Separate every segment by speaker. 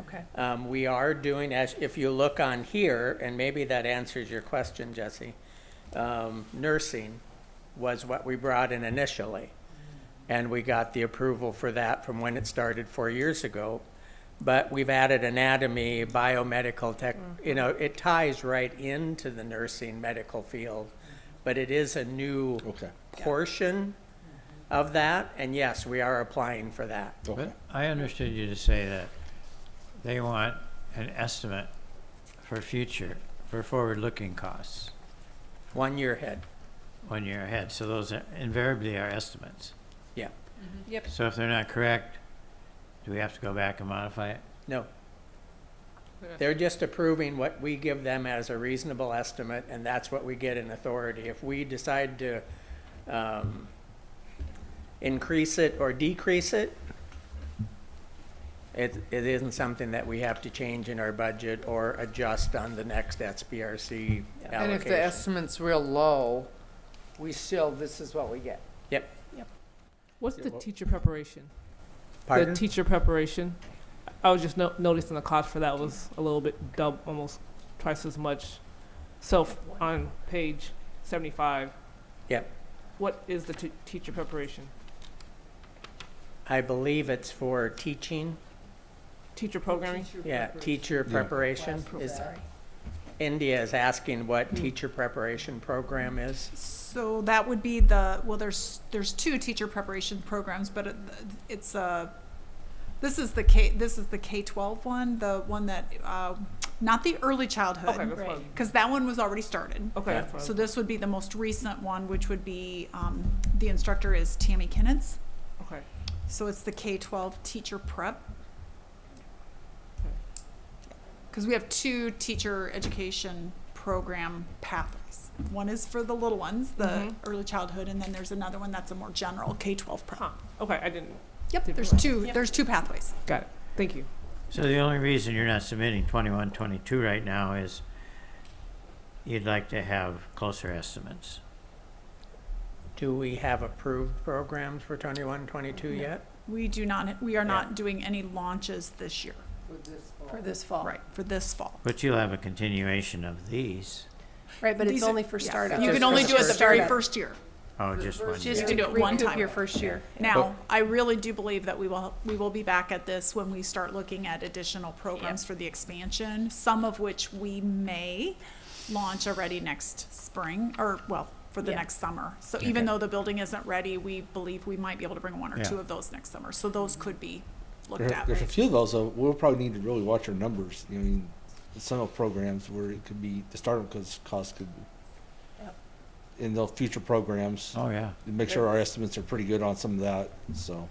Speaker 1: Okay.
Speaker 2: Um, we are doing, as, if you look on here, and maybe that answers your question, Jesse, um, nursing was what we brought in initially. And we got the approval for that from when it started four years ago. But we've added anatomy, biomedical tech, you know, it ties right into the nursing medical field. But it is a new
Speaker 3: Okay.
Speaker 2: portion of that, and yes, we are applying for that.
Speaker 3: Okay.
Speaker 4: But I understood you to say that they want an estimate for future, for forward-looking costs
Speaker 2: One year ahead,
Speaker 4: one year ahead. So those are- invariably are estimates.
Speaker 2: yeah,
Speaker 1: Yep.
Speaker 4: So if they're not correct, do we have to go back and modify it?
Speaker 2: no. They're just approving what we give them as a reasonable estimate, and that's what we get in authority. If we decide to, um, increase it or decrease it, it, it isn't something that we have to change in our budget or adjust on the next SBRC allocation.
Speaker 5: And if the estimate's real low, we still, this is what we get.
Speaker 2: Yep,
Speaker 6: What's the teacher preparation?
Speaker 2: pardon?
Speaker 6: The teacher preparation. I was just no- noticing the cost for that was a little bit double, almost twice as much. So f- on page seventy-five.
Speaker 2: Yep.
Speaker 6: What is the t- teacher preparation?
Speaker 2: I believe it's for teaching,
Speaker 6: Teacher programming.
Speaker 2: yeah, teacher preparation is, India is asking what teacher preparation program is.
Speaker 1: So that would be the, well, there's, there's two teacher preparation programs, but it- it's a, this is the K, this is the K-12 one, the one that, uh, not the early
Speaker 6: Okay,
Speaker 1: childhood,
Speaker 6: that's what.
Speaker 1: because that one was already started.
Speaker 6: Okay.
Speaker 2: Yeah.
Speaker 6: that's what I
Speaker 1: So
Speaker 6: was-
Speaker 1: this would be the most recent one, which would be, um, the instructor is Tammy Kinnens.
Speaker 6: Okay.
Speaker 1: So it's the K-12 teacher prep. Because we have two teacher education program pathways. One is for the little ones, the
Speaker 6: Mhm.
Speaker 1: early childhood, and then there's another one that's a more general K-12 prep.
Speaker 6: Huh. Okay, I didn't.
Speaker 1: Yep,
Speaker 6: Did
Speaker 1: there's
Speaker 6: we-
Speaker 1: two.
Speaker 6: Yep.
Speaker 1: There's two pathways.
Speaker 6: Got it. Thank you.
Speaker 4: So the only reason you're not submitting 21, 22 right now is you'd like to have closer estimates.
Speaker 2: Do we have approved programs for 21, 22
Speaker 1: No.
Speaker 2: yet?
Speaker 1: We do not. We are
Speaker 4: Yeah.
Speaker 1: not doing any launches this year.
Speaker 5: For this fall.
Speaker 1: Right for this fall.
Speaker 4: But you'll have a continuation of these.
Speaker 7: Right, but
Speaker 1: These
Speaker 7: it's
Speaker 1: are-
Speaker 7: only for
Speaker 1: yeah.
Speaker 7: startup.
Speaker 1: You
Speaker 2: Just
Speaker 1: can only
Speaker 2: for
Speaker 1: do it the very
Speaker 7: startup.
Speaker 1: first year.
Speaker 4: Oh, just one
Speaker 7: Just
Speaker 4: year.
Speaker 1: You can do it one
Speaker 7: recoup
Speaker 1: time.
Speaker 7: Your first year.
Speaker 1: Now, I really do believe that we will, we will be back at this when we start looking at additional programs for the expansion, some of which we may launch already next spring, or, well, for the
Speaker 7: Yeah.
Speaker 1: next summer. So even though the building isn't ready, we believe we might be able to bring one or
Speaker 4: Yeah.
Speaker 1: two of those next summer. So those could be looked
Speaker 3: There,
Speaker 1: at.
Speaker 3: there's a few of those, though. We'll probably need to really watch our numbers. I mean, some of programs where it could be the startup costs, costs could be.
Speaker 7: Yep.
Speaker 3: In the future programs,
Speaker 4: Oh, yeah,
Speaker 3: to make sure our estimates are pretty good on some of that. So,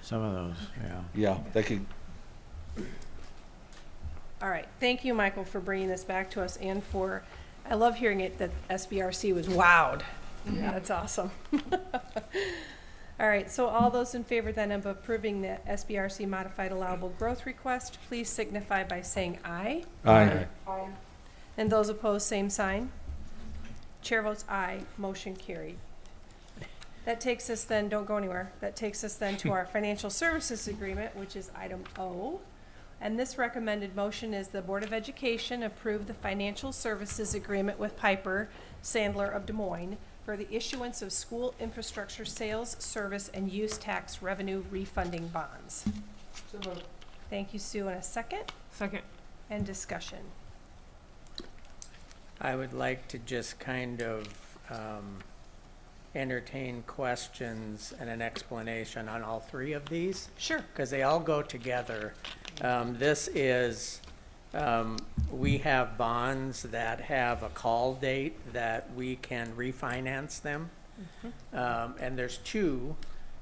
Speaker 4: some of those, yeah.
Speaker 3: yeah, that could
Speaker 7: All right, thank you, Michael, for bringing this back to us and for, I love hearing it that SBRC was wowed. That's awesome. All right, so all those in favor then of approving the SBRC modified allowable growth request, please signify by saying aye.
Speaker 3: Aye.
Speaker 7: And those opposed, same sign. Chair votes aye, motion carried. That takes us then, don't go anywhere, that takes us then to our financial services agreement, which is item O. And this recommended motion is the Board of Education approve the financial services agreement with Piper Sandler of Des Moines for the issuance of school infrastructure sales, service, and use tax revenue refunding bonds. Thank you, Sue, and a second,
Speaker 6: Second.
Speaker 7: and discussion.
Speaker 2: I would like to just kind of um, entertain questions and an explanation on all three of these,
Speaker 7: Sure.
Speaker 2: because they all go together. Um, This is, um, we have bonds that have a call date that we can refinance them. Um, and there's two.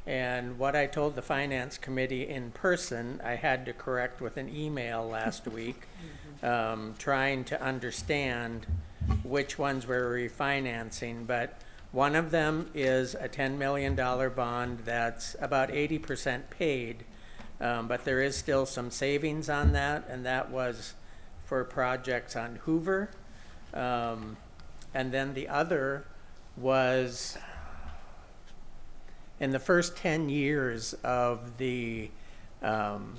Speaker 2: And what I told the finance committee in person, I had to correct with an email last week, um, trying to understand which ones we're refinancing. But one of them is a ten million dollar bond that's about eighty percent paid. Um, but there is still some savings on that, and that was for projects on Hoover. Um, and then the other was in the first 10 years of the um,